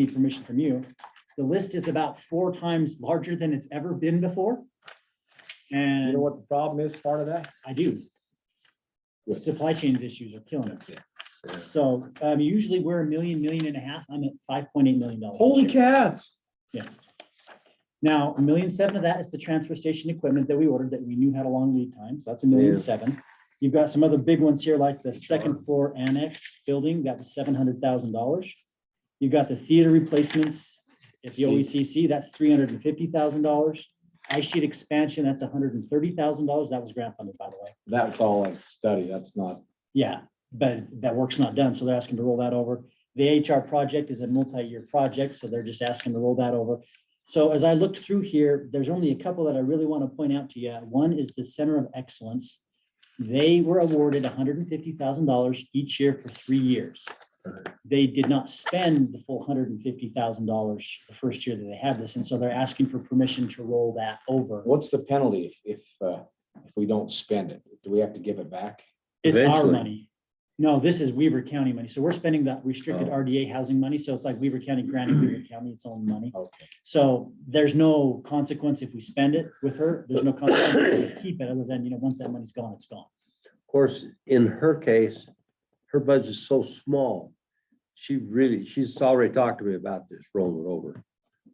need permission from you. The list is about four times larger than it's ever been before. You And know what the problem is part of that? I do. Good. Supply chains issues are killing us. Yeah. So um, usually we're a million, million and a half. I'm at five point eight million dollars. this Holy year. cats. Now, a million seven of that is the transfer station equipment that we ordered that we knew had a long lead time, so that's a million Yeah. seven. You've got some other big ones here, like the second floor annex building, that was seven hundred thousand dollars. You've got the theater replacements at the OECC, that's three hundred and fifty thousand dollars. Ice sheet expansion, that's hundred and thirty thousand dollars, that was grant funded, by the way. That's all a study. That's not, Yeah, but that work's not done, so they're asking to roll that over. The HR project is a multi-year project, so they're just asking to roll that over. So as I looked through here, there's only a couple that I really want to point out to you. One is the Center of Excellence. They were awarded hundred and fifty thousand dollars each year for three years. They did not spend the full hundred and fifty thousand dollars the first year that they had this, and so they're asking for permission to roll that over. what's the penalty if, if, uh, if we don't spend it? Do we have to give it back? It's our Eventually. money. No, this is Weaver County money. So we're spending that restricted Oh. RDA housing money. So it's like Weaver County granting Weaver County its own money. Okay. So there's no consequence if we spend it with her. There's no consequence if we keep it other than, you know, once that money's gone, it's gone. Of course, in her case, her budget's so small. She really, she's already talked to me about this rolling over.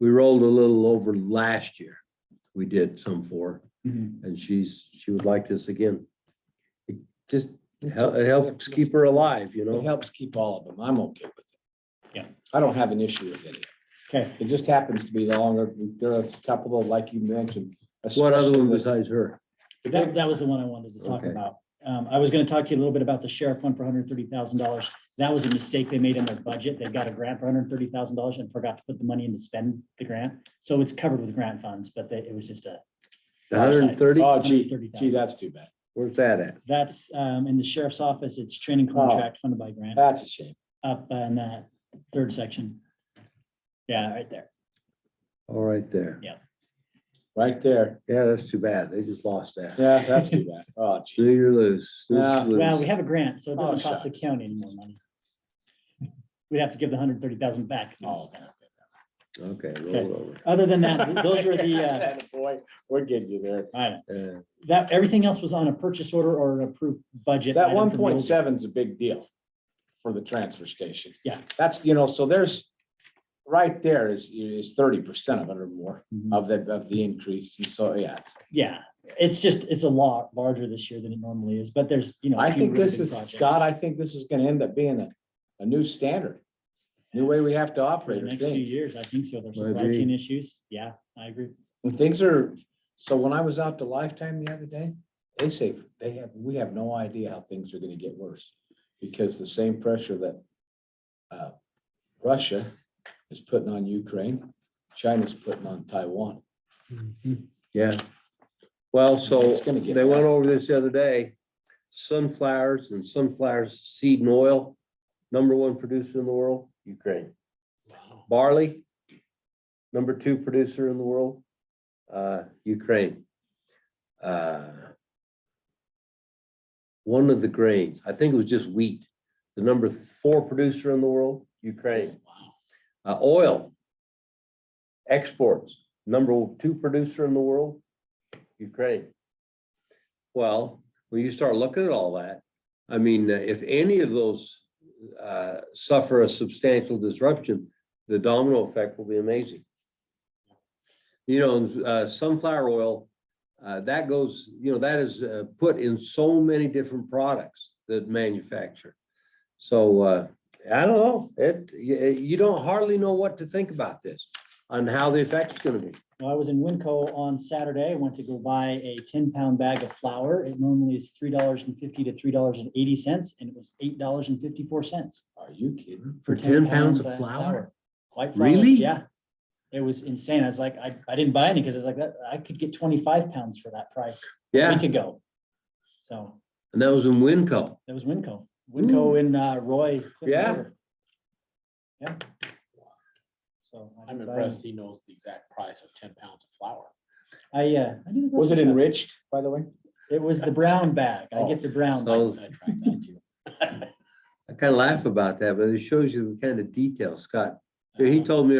We rolled a little over last year. We did some for, Mhm. and she's, she would like this again. It Just, it hel- it helps keep her alive, you It know? helps keep all of them. I'm okay with it. Yeah. I don't have an issue with any. of it. Okay, It just happens to be longer. There are a couple of, like you mentioned. What other one especially the- besides her? that, that was the one I wanted to talk Okay. about. Um, I was gonna talk to you a little bit about the sheriff one for hundred and thirty thousand dollars. That was a mistake they made in their budget. They got a grant for hundred and thirty thousand dollars and forgot to put the money in to spend the grant. So it's covered with grant funds, but they- it was just a The hundred and thirty? Oh, gee, $130,000. gee, that's too bad. Where's that at? That's um in the sheriff's office. It's training contract funded by grant That's a shame. up in that third section. Yeah, right there. All right there. Right there. Yeah, that's too bad. They just lost that. Yeah, that's too bad. Oh, Do gee. you lose? Snooze Yeah. lose. Well, we have a grant, so it doesn't Oh, cost the shucks. county any more money. We'd have to give the hundred thirty thousand back. if we don't Oh, spend it. Okay, roll it Other than that, those were the, uh, Boy, we're getting you there. I don't- over. Yeah. that, everything else was on a purchase order or an approved budget. That item one for the old- point seven is a big deal for the transfer station. Yeah. That's, you know, so there's, right there is, is thirty percent of it or more Mhm. of the, of the increase. And So, yeah. it's- Yeah, it's just, it's a lot larger this year than it normally is, but there's, you know. a I few think really this big is, projects. Scott, I think this is gonna end up being a, a new standard. New way we have to For the operate. I next few think. years, I think so. There's I supply agree. chain issues. Yeah, I agree. And things are, so when I was out to Lifetime the other day, they say they have, we have no idea how things are gonna get worse. Because the same pressure that uh, Russia is putting on Ukraine, China's putting on Taiwan. Yeah. Well, so It's gonna get they went bad. over this the other day. Sunflowers and sunflower seed and oil, number one producer in the world, Ukraine. Barley, number two producer in the world, uh, Ukraine. Uh, One of the grains, I think it was just wheat, the number four producer in the world, Ukraine. Uh, oil. Exports, number two producer in the world, Ukraine. Well, when you start looking at all that, I mean, uh, if any of those uh, suffer a substantial disruption, the domino effect will be amazing. You know, uh, sunflower oil, uh, that goes, you know, that is uh, put in so many different products that manufacture. So uh, I don't know, it, you you don't hardly know what to think about this, on how the effect's gonna be. Well, I was in Winco on Saturday, I went to go buy a ten pound bag of flour. It normally is three dollars and fifty to three dollars and eighty cents, and it was eight dollars and fifty four cents. Are you kidding? For ten pounds of flour? White flour, Really? Yeah. It was insane. I was like, I, I didn't buy any because I was like, that, I could get twenty five pounds for that price a Yeah, week ago. So and that was in Winco. that was Winco, Winco in uh, Roy. Clinton Yeah. River. Yeah. So. I I'm didn't buy impressed any. he knows the exact price of ten pounds of flour. I, uh. I didn't go Was it check. enriched, by the way? It was the brown bag. I get the brown. bag. Oh, So I tried that too. I kind of laugh about that, but it shows you the kind of detail Scott He told me